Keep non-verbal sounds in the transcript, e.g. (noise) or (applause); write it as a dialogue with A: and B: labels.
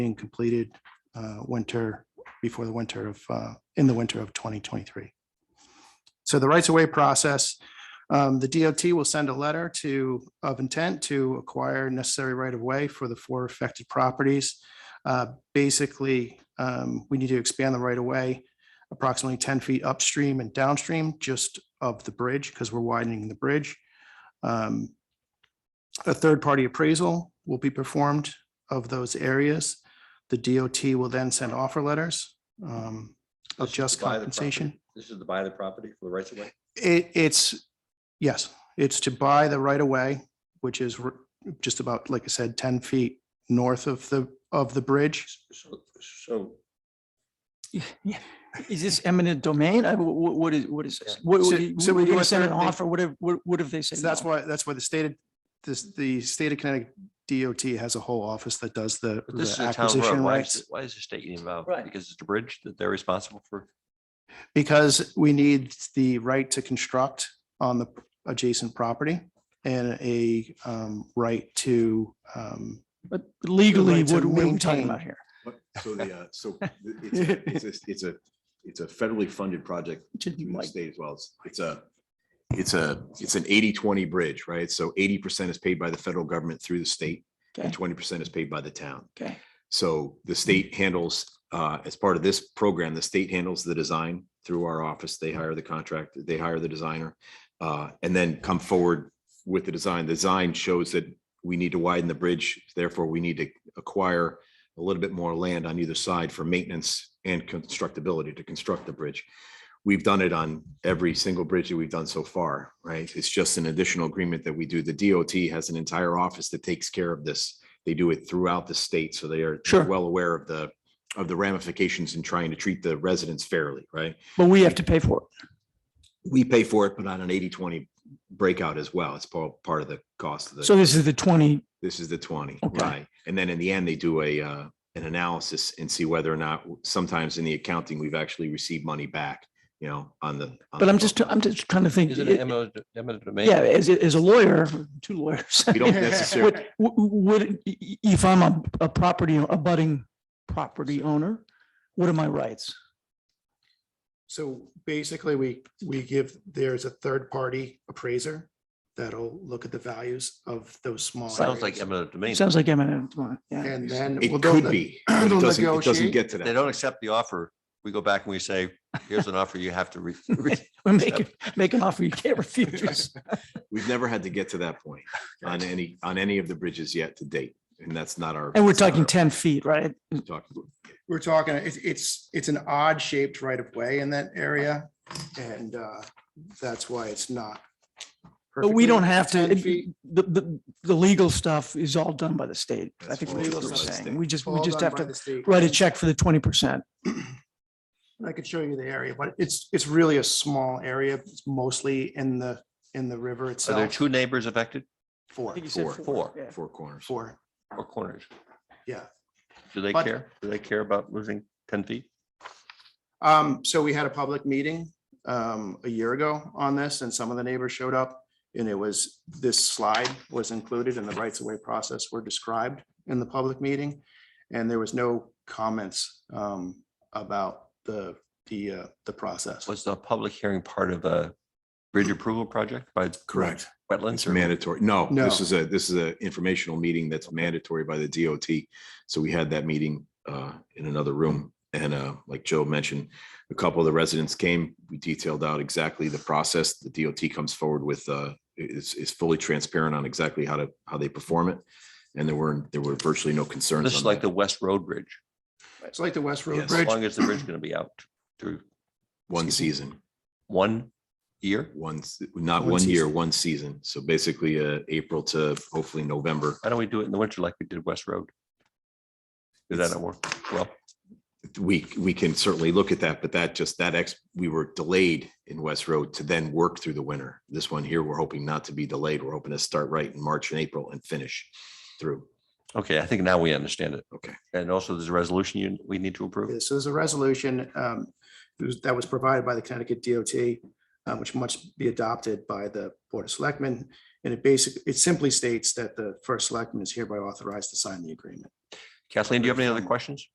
A: being completed uh, winter, before the winter of, uh, in the winter of 2023. So the rights of way process, um, the DOT will send a letter to, of intent to acquire necessary right of way for the four affected properties. Uh, Basically, um, we need to expand the right of way approximately 10 feet upstream and downstream just of the bridge because we're widening the bridge. Um, A third-party appraisal will be performed of those areas. The DOT will then send offer letters um,
B: This
A: of
B: is to buy
A: just
B: the property.
A: compensation.
B: This is to buy the property for the rights of way.
A: It, it's, yes, it's to buy the right of way, which is r- just about, like I said, ten feet north of the, of the bridge.
B: So, so
C: Yeah, yeah. Is this eminent domain? I- wh- wh- What is, what is this? What,
A: So-
C: what do you-
A: so we
C: we're
A: do
C: gonna
A: a
C: send an
A: third thing.
C: offer, what if, what what if they say?
A: So that's
C: no?
A: why, that's why the state of, this, the state of Connecticut DOT has a whole office that does the
D: But this
A: the
D: is a town road.
A: acquisition
D: Why is,
A: rights.
D: the- why is the state getting involved?
C: Right.
D: Because it's a bridge that they're responsible for.
A: Because we need the right to construct on the adjacent property and a um, right to, um,
C: But legally,
A: right to
C: what what are we talking
A: maintain.
C: about here?
E: What- So the, uh,
C: (laughs)
E: so th- it's, a- it's, a- it's a, it's a federally funded project
C: To,
E: through the
C: like,
E: state as well. It's, it's a, it's a, it's an 80-20 bridge, right? So eighty percent is paid by the federal government through the state and
C: Okay. Hmm.
E: twenty percent is paid by the town.
C: Okay,
E: So the state handles, uh, as part of this program, the state handles the design through our office. They hire the contractor, they hire the designer. Uh, and then come forward with the design. The Design shows that we need to widen the bridge, therefore we need to acquire a little bit more land on either side for maintenance and constructability to construct the bridge. We've done it on every single bridge that we've done so far, right? It's just an additional agreement that we do. The DOT has an entire office that takes care of this. They do it throughout the state, so they are
C: Sure.
E: well aware of the, of the ramifications in trying to treat the residents fairly, right?
C: but we have to pay for it.
E: We pay for it, but on an 80-20 breakout as well. It's part, part of the cost of the.
C: So this is the twenty,
E: This is the twenty,
C: Okay.
E: right? And then in the end, they do a, uh, an analysis and see whether or not, sometimes in the accounting, we've actually received money back, you know, on the. on
C: but
E: the
C: I'm just,
E: total.
C: I'm just trying to think.
D: Is it
C: it-
D: an eminent eminent domain?
C: Yeah, as, a- as a lawyer, two lawyers.
E: We
C: (laughs)
E: don't necessarily,
A: (laughs)
C: Would, would, if I'm a, a property, a budding property owner, what are my rights?
A: so basically we, we give, there's a third-party appraiser that'll look at the values of those small.
D: Sounds like
A: areas.
D: eminent domain.
C: Sounds like eminent, domain, yeah.
A: And then. well,
E: it
A: they'll-
E: could be, but
A: they'll
E: it doesn't, it doesn't
A: negotiate.
E: get to
D: If They
E: that.
D: don't accept the offer. We go back and we say, here's an offer you have to re-
A: (laughs)
D: re-
C: We make, it- make an offer you can't refuse.
E: We've never had to get to that point on any, on any of the bridges yet to date. And that's not our.
C: And we're
E: that's not
C: talking
E: our-
C: ten feet, right?
E: we're talking-
A: We're talking, it's, it's, it's an odd shaped right of way in that area. And uh, that's why it's not.
C: But we don't have to,
A: 10 feet.
C: it- the, the, the legal stuff is all done by the state. I
E: That's
C: think
E: all
C: that's what
A: done by
C: we're
A: the
C: saying.
E: state.
C: We just, we
A: All
C: just
A: done by
C: have to
A: the state.
C: write a check for the twenty percent.
A: I could show you the area, but it's, it's really a small area. It's mostly in the, in the river
D: Are there
A: itself.
D: two neighbors affected
A: Four,
E: Four,
D: four.
C: Yeah.
E: four corners.
A: four,
D: or corners?
A: yeah.
D: Do they
A: But-
D: care? Do they care about losing ten feet?
A: Um, so we had a public meeting um, a year ago on this and some of the neighbors showed up. And it was, this slide was included and the rights of way process were described in the public meeting. And there was no comments um, about the, the, uh, the process.
D: Was the public hearing part of a bridge approval project by
E: Correct.
D: wetlands
E: It's
D: or?
E: mandatory. No, this
A: No.
E: is a, this is a informational meeting that's mandatory by the DOT. So we had that meeting uh in another room. And uh like Joe mentioned, a couple of the residents came, we detailed out exactly the process. The DOT comes forward with uh is is fully transparent on exactly how to, how they perform it. And there were, there were virtually no concerns.
D: This is
E: on
D: like
E: that.
D: the West Road Bridge.
A: It's like the West Road
E: Yes.
D: As
A: Bridge.
D: long as the bridge is going to be out through
E: One season,
D: one year?
E: one, s- not
A: One
E: one year,
A: season.
E: one season. So basically uh April to hopefully November.
D: Why don't we do it in the winter like we did West Road? Did that
E: It's-
D: not work? Well,
E: we, we can certainly look at that, but that just, that ex, we were delayed in West Road to then work through the winter. This one here, we're hoping not to be delayed. We're hoping to start right in March and April and finish through.
D: okay, I think now we understand it.
E: Okay.
D: And also there's a resolution you, we need to approve.
A: This is a resolution um, it was- that was provided by the Connecticut DOT, uh, which must be adopted by the Board of Selectmen. And it basically, it simply states that the first selectman is hereby authorized to sign the agreement.
D: Kathleen, do you have any other questions?